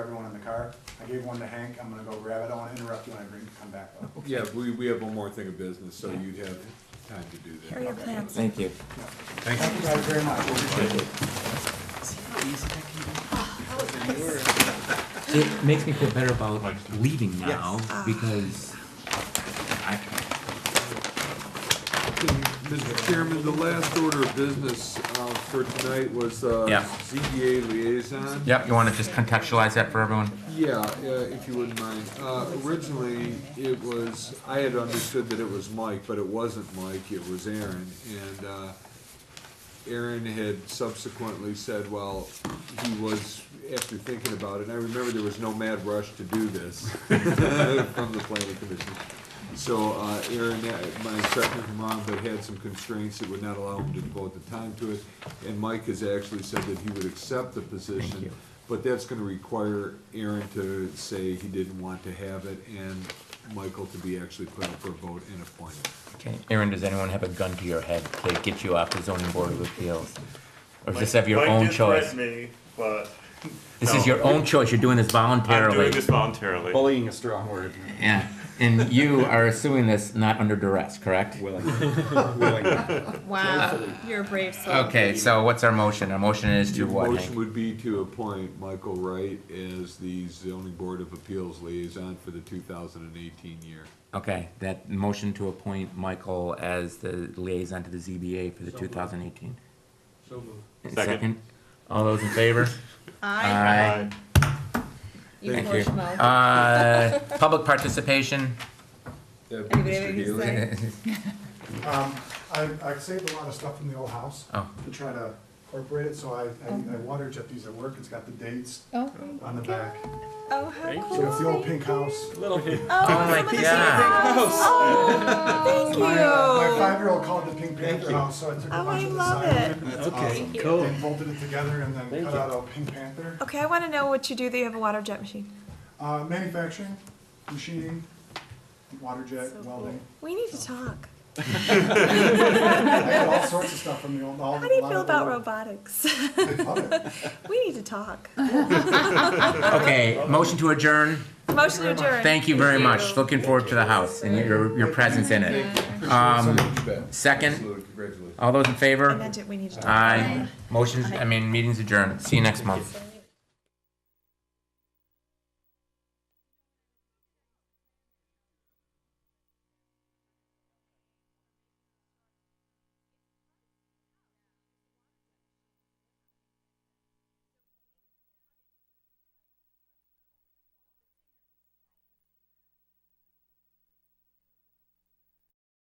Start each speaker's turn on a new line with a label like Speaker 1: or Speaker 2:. Speaker 1: car. I gave one to Hank, I'm gonna go grab it, I don't wanna interrupt you when I bring, come back though.
Speaker 2: Yeah, we, we have one more thing of business, so you'd have time to do
Speaker 3: Here are
Speaker 2: that.
Speaker 3: your plans.
Speaker 4: Thank you.
Speaker 1: Thank you guys very much, We appreciate it.
Speaker 4: It makes me feel better about leaving now
Speaker 5: Ah.
Speaker 4: because I,
Speaker 2: Mr. Chairman, the last order of business, uh, for tonight was, uh,
Speaker 4: Yeah.
Speaker 2: ZBA liaison.
Speaker 4: yep, you want to just contextualize that for everyone?
Speaker 2: Yeah, uh, if you wouldn't mind. Uh, Originally, it was, I had understood that it was Mike, but it wasn't Mike, it was Aaron. And uh, Aaron had subsequently said, well, he was, after thinking about it, and I remember there was no mad rush to do this from the planning commission. So uh, Aaron, uh, my second from Ron, but had some constraints that would not allow him to devote the time to it. And Mike has actually said that he would accept the position, but that's gonna require Aaron to say he didn't want to have it and Michael to be actually put up for a vote and appointed.
Speaker 4: Okay, Aaron, does anyone have a gun to your head to get you off the zoning board of appeals? Or just have your
Speaker 5: Mike
Speaker 4: own
Speaker 5: did
Speaker 4: choice?
Speaker 5: threaten me, but
Speaker 4: This
Speaker 5: no.
Speaker 4: is your own choice, you're doing this
Speaker 5: I'm doing
Speaker 4: voluntarily.
Speaker 5: this voluntarily.
Speaker 6: Bullying a strong word.
Speaker 4: Yeah, and you are assuming this not under duress, correct?
Speaker 6: Willing. Willing.
Speaker 3: Wow, you're a brave soul.
Speaker 4: Okay, so what's our motion? Our motion is to
Speaker 2: Your
Speaker 4: what,
Speaker 2: motion
Speaker 4: Hank?
Speaker 2: would be to appoint Michael Wright as the zoning board of appeals liaison for the two thousand and eighteen year.
Speaker 4: Okay, that motion to appoint Michael as the liaison to the ZBA for the two thousand eighteen. So moved.
Speaker 5: Second.
Speaker 4: Second, all those in favor?
Speaker 3: I,
Speaker 4: Aye.
Speaker 3: you
Speaker 4: Thank
Speaker 3: push
Speaker 4: you.
Speaker 3: mode.
Speaker 4: Uh, public participation?
Speaker 2: That'd be
Speaker 3: Anybody
Speaker 2: Mr.
Speaker 3: have anything to
Speaker 2: Haley.
Speaker 3: say?
Speaker 1: Um, I, I saved a lot of stuff from the old house
Speaker 4: Oh.
Speaker 1: to try to incorporate it, so I, I I water jet these at work, it's got the dates
Speaker 3: Oh,
Speaker 1: on the back.
Speaker 3: oh, how cool.
Speaker 1: So it's the old pink house.
Speaker 3: Oh,
Speaker 4: Oh my
Speaker 3: somebody said
Speaker 4: God.
Speaker 3: house. Oh, thank you.
Speaker 1: My, uh, my five-year-old called it the Pink Panther house, so I took a
Speaker 3: Oh, I
Speaker 1: bunch of the
Speaker 3: love
Speaker 1: sign.
Speaker 3: it.
Speaker 1: Awesome.
Speaker 6: Cool.
Speaker 1: And bolted it together and then cut out a Pink Panther.
Speaker 3: Okay, I want to know what you do that you have a water jet machine.
Speaker 1: Uh, manufacturing, machining, water jet, welding.
Speaker 3: We need to talk.
Speaker 1: I got all sorts of stuff from the old, all.
Speaker 3: How do you feel about robotics?
Speaker 1: robots?
Speaker 3: we need to talk.
Speaker 4: Okay, motion to adjourn.
Speaker 3: Motion adjourned.
Speaker 4: Thank you very much.
Speaker 3: you.
Speaker 4: Looking forward to the house and your, your presence in it. Um, second,
Speaker 2: Absolutely, congratulations.
Speaker 4: all those in
Speaker 3: I
Speaker 4: favor?
Speaker 3: meant it. We need to talk.
Speaker 4: Aye. Motion, I mean, meeting's adjourned. See you next month.